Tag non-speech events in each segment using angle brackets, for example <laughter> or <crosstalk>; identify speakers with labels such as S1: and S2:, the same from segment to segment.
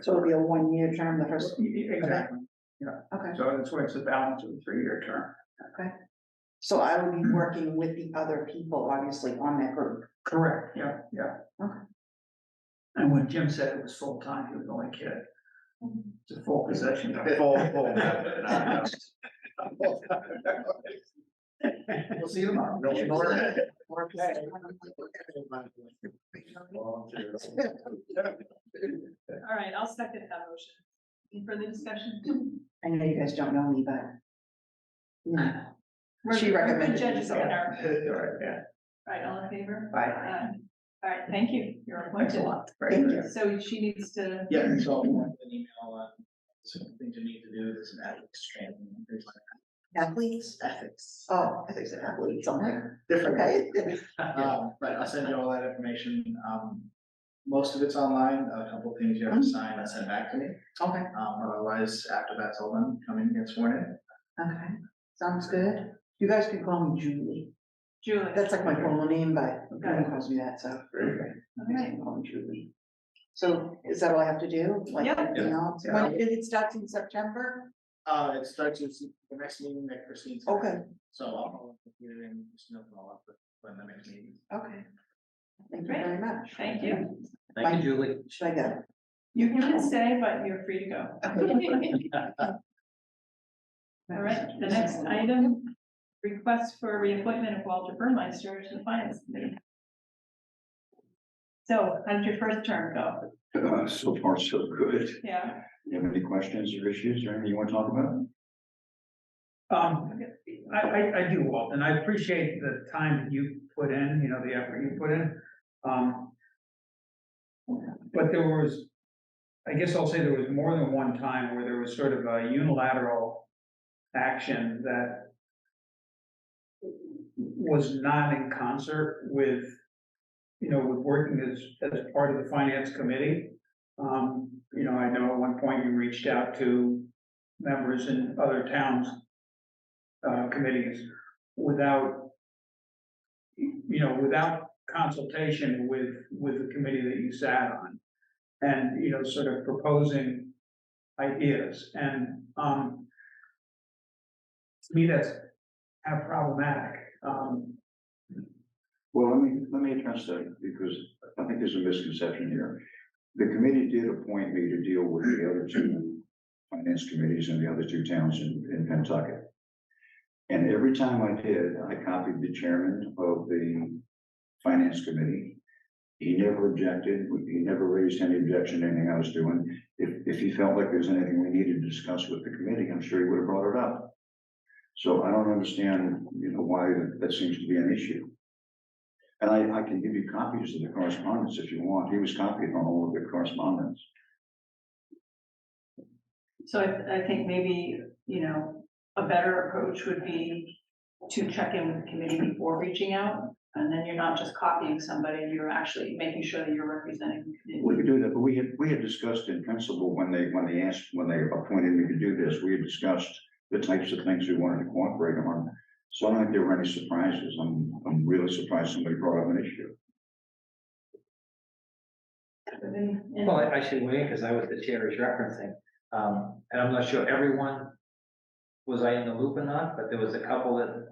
S1: So it'll be a one-year term, the first,
S2: e, Exactly,
S1: okay,
S2: so that's why it's a balance of a three-year term.
S1: so I will be working with the other people, obviously, on that group.
S2: Correct. Yeah, yeah.
S1: Okay.
S2: And when Jim said it was full-time, he was only kidding, it's a full possession.
S3: Full, full. No,
S2: <laughs> We'll see you tomorrow.
S3: no, no, more
S2: <laughs>
S3: than-
S4: All right, I'll second that motion. Any further discussion?
S1: I know you guys don't know me, but. you know,
S4: We're-
S1: She recommended
S4: We're judges
S1: it.
S4: of our,
S2: Yeah,
S4: right, all in favor?
S1: Bye.
S4: Aye. All right, thank you, you're
S2: thanks a
S4: appointed.
S2: lot. Right.
S1: Thank you.
S4: So she needs to,
S2: Yeah, and
S5: So
S2: so,
S5: I'll want an email on some things you need to do, there's an ethics training, there's like
S1: Athletes,
S5: ethics.
S1: oh, I think it's athletes, I'm like,
S2: different.
S1: okay.
S5: Um, but I'll send you all that information, um, most of it's online, a couple things you have to sign, and send back to me.
S1: Okay,
S5: Um, otherwise, after that's all done, come in, and get sworn in.
S1: okay, sounds good. You guys can call me Julie.
S4: Julie.
S1: That's like my formal name, but no one calls me that, so. You guys
S4: Okay.
S1: can call me Julie. So is that all I have to do? Like
S4: Yeah.
S1: everything else?
S2: Yeah.
S1: When, it starts in September?
S5: Uh, it starts with the next meeting that Christine's. having.
S1: Okay,
S5: So I'll, you and just know all up when the next meeting.
S1: okay. Thank you very much.
S4: Thank you.
S1: Thank
S3: you, Julie.
S1: Should I go?
S4: You can stay, but you're free to go. All right, the next item, request for reappointment of Walter Burmeister to the finance committee. So how did your first term go?
S6: Uh, so far, so good.
S4: Yeah.
S6: You have any questions or issues or anything you want to talk about?
S2: Um, I, I, I do, Walt, and I appreciate the time that you put in, you know, the effort you put in. Um. But there was, I guess I'll say there was more than one time where there was sort of a unilateral action that was not in concert with, you know, with working as, as part of the finance committee. Um, you know, I know at one point you reached out to members in other towns uh, committees without, you know, without consultation with, with the committee that you sat on. And, you know, sort of proposing ideas and, um, to me, that's kind of problematic. Um,
S6: Well, let me, let me address that because I think there's a misconception here. The committee did appoint me to deal with the other two finance committees in the other two towns in, in Pentucket. And every time I did, I copied the chairman of the finance committee. He never objected, he never raised any objection to anything I was doing. If, if he felt like there was anything we needed to discuss with the committee, I'm sure he would have brought it up. So I don't understand, you know, why that- that seems to be an issue. And I, I can give you copies of the correspondence if you want. He was copied on all of the correspondence.
S4: So I, I think maybe, you know, a better approach would be to check in with the committee before reaching out. And then you're not just copying somebody, you're actually making sure that you're representing the
S6: We
S4: committee.
S6: could do that, but we had, we had discussed in principle when they, when they asked, when they appointed me to do this, we had discussed the types of things we wanted to cooperate on. So I don't think there were any surprises. I'm, I'm really surprised somebody brought up an issue.
S4: And- and-
S3: Well, I I should wait, because I was the chair is referencing, um, and I'm not sure everyone, was I in the loop or not, but there was a couple that,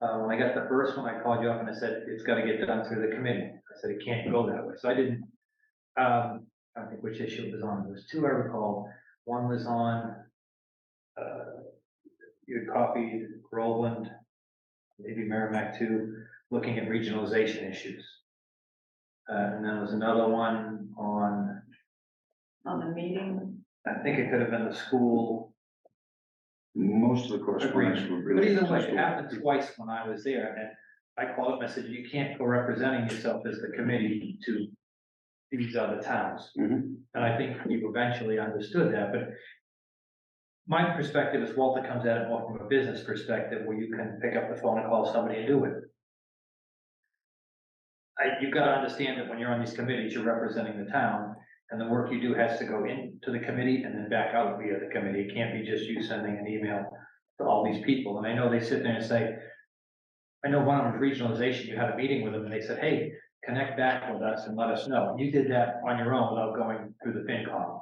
S3: uh, when I got the first one, I called you up and I said, it's gotta get done through the committee. I said, it can't go that way, so I didn't, um, I don't think which issue it was on, there was two I recall, one was on, uh, you had copied Roland, maybe Merrimack too, looking at regionalization issues. Uh, and then there was another one on,
S4: On the meeting,
S3: I think it could have been the school,
S6: Most of the correspondence were
S3: but
S6: really.
S3: either way, it happened twice when I was there, and I called up and I said, you can't go representing yourself as the committee to these other towns,
S6: Mhm.
S3: and I think you eventually understood that, but my perspective is Walter comes at it more from a business perspective, where you can pick up the phone and call somebody and do it. I, you've got to understand that when you're on these committees, you're representing the town, and the work you do has to go into the committee and then back out via the committee. It can't be just you sending an email to all these people. And I know they sit there and say, I know one of them, regionalization, you had a meeting with them and they said, hey, connect back with us and let us know. You did that on your own without going through the FinCom.